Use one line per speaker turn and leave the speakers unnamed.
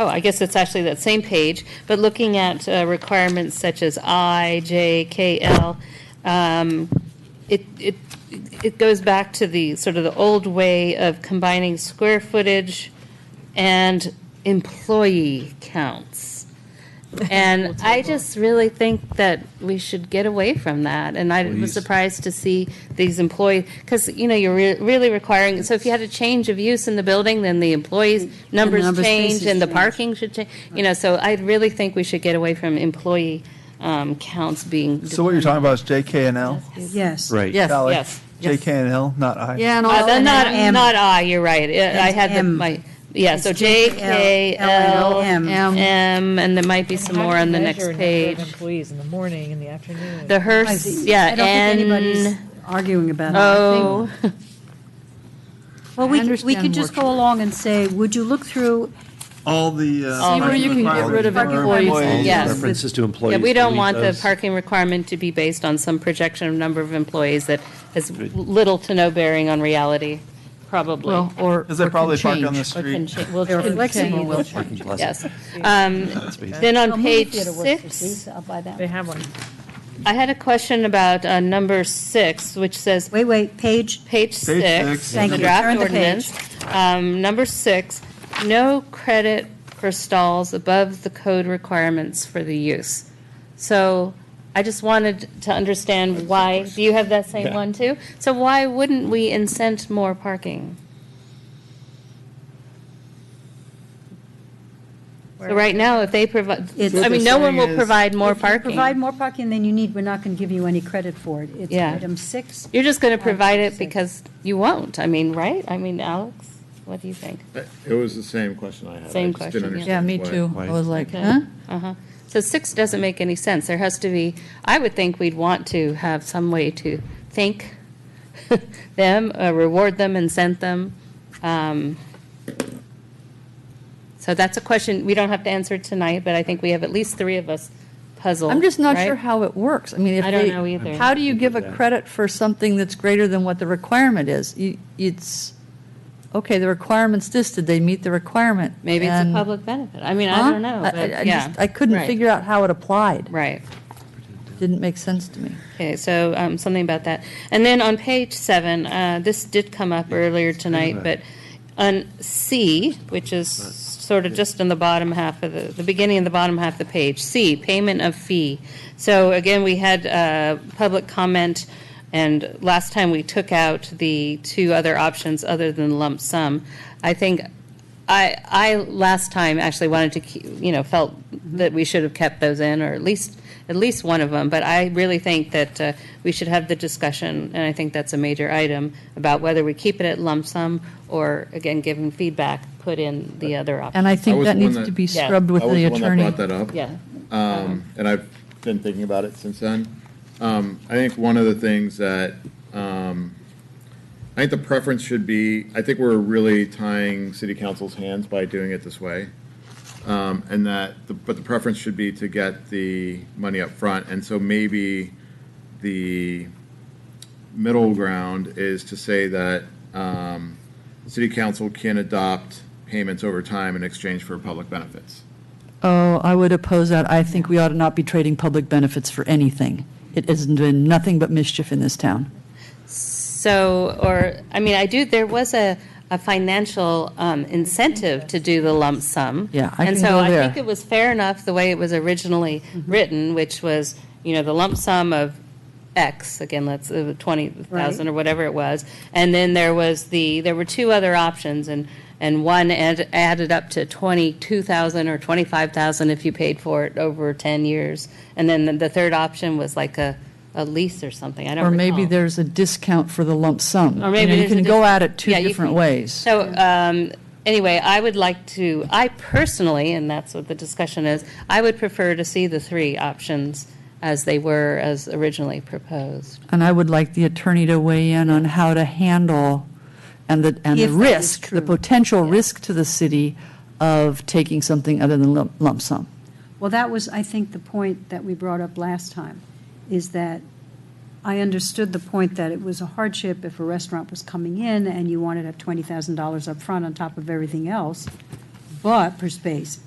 oh, I guess it's actually that same page, but looking at uh, requirements such as I, J, K, L, um, it, it, it goes back to the, sort of the old way of combining square footage and employee counts. And I just really think that we should get away from that, and I was
Please.
surprised to see these employees, because, you know, you're re- really requiring, so if you had a change of use in the building, then the employees' numbers
numbers,
change,
faces
and the
change.
parking should change, you know, so I really think we should get away from employee um, counts being.
So what you're talking about is JK and L?
Yes.
Right.
Yes,
Golly.
yes.
JK and L, not I.
Yeah, and
Uh,
all.
then
and
not,
M.
not I, you're right. Uh, I
It's
had the,
M.
my, yeah, so
It's
J, K, L,
M.
M, and there might be some more on the next page.
Employees in the morning, in the afternoon.
The
I
hearse,
see.
yeah, Oh.
I don't think anybody's
N,
arguing about it.
O.
Well, we, could- we
understand
could just go along and say, would you look through
All the. uh,
See where you
can get rid of
requirements for
employees.
All the
Yes.
References to employees.
Yeah, we don't
delete
want the
those.
parking requirement to be based on some projection of number of employees that has little to no bearing on reality, probably.
Well, or.
Because they
or
probably
can
park on
change.
the
Or can
street.
cha- we'll
They're
change-
flexible,
change-
we'll
Parking plaza.
Yes. Um, Then on page six,
They have one.
I had a question about uh, number six, which says
Wait, wait, page,
page
six.
six,
Thank
the
you.
draft
Turn the
ordinance. Um, Number six, no credit for stalls above the code requirements for the use. So I just wanted to understand why, do you have that same one too? So why wouldn't we incent more parking? So right now, if they provide,
It's-
I mean, no one will provide more
If you
parking.
Provide more parking than you need, we're not going to give you any credit for it. It's
Yeah.
item six.
You're just going to provide it
Six.
because you won't, I mean, right? I mean, Alex, what do you think?
It was the same question I had. I
Same
just didn't
question, yeah.
understand
Yeah, me
why.
too. I
Why?
was like,
Okay.
huh?
Uh-huh. So six doesn't make any sense. There has to be, I would think we'd want to have some way to thank them, uh, reward them, and send them. Um, So that's a question we don't have to answer tonight, but I think we have at least three of us puzzled.
I'm just not sure
right?
how it works. I mean, if
I don't
they-
know either.
How do you give a
Yeah.
credit for something that's greater than what the requirement is? You, it's, okay, the requirement's this, did they meet the requirement?
Maybe it's a
And-
public benefit. I mean, I
Huh?
don't know,
I- I- I
but
just-
yeah.
I couldn't
Right.
figure out how it applied.
Right.
Didn't make sense to me.
Okay, so um, something about that. And then on page seven, uh, this did come up earlier tonight, but on C, which is sort of just in the bottom half of the, the beginning and the bottom half of the page, C, payment of fee. So again, we had uh, public comment, and last time we took out the two other options other than lump sum. I think I, I last time actually wanted to, keep- you know, felt
Mm-hmm.
that we should have kept those in, or at least, at least one of them. But I really think that uh, we should have the discussion, and I think that's a major item, about whether we keep it at lump sum or, again, given feedback, put in the other option.
And I
I
think
was
that
the one
needs to
that-
be
Yeah.
scrubbed with
I was
the
the one that
attorney.
brought that up.
Yeah.
Um, and I've been thinking about it since then. Um, I think one of the things that, um, I think the preference should be, I think we're really tying city council's hands by doing it this way. Um, and that, the- but the preference should be to get the money up front. And so maybe the middle ground is to say that, um, city council can adopt payments over time in exchange for public benefits.
Oh, I would oppose that. I think we ought to not be trading public benefits for anything. It has been nothing but mischief in this town.
So, or, I mean, I do, there was a, a financial um, incentive to do the lump sum.
Yeah, I
And
can
so
go
I
there. Mm-hmm.
think it was fair enough the way it was originally written, which was, you know, the lump sum of X, again, let's, uh, 20,000 or whatever it was. And then there was the, there were two other options, and, and one add- added up to 22,000 or 25,000 if you paid for it over 10 years. And then the- the third option was like a, a lease or something, I don't
Or
recall.
maybe there's a discount for the lump sum.
Or maybe
You know,
there's a
You can go
dis-
at it two
Yeah, you
different
can-
ways.
So, um, anyway, I would like to, I personally, and that's what the discussion is, I would prefer to see the three options as they were, as originally proposed.
And I would like the attorney to weigh in on how to handle and the, and the
If that is
risk, the
true.
potential risk to the city of taking something other than lump- lump sum.
Well, that was, I think, the point that we brought up last time, is that I understood the point that it was a hardship if a restaurant was coming in and you wanted to have $20,000 up front on top of everything else, but, per space,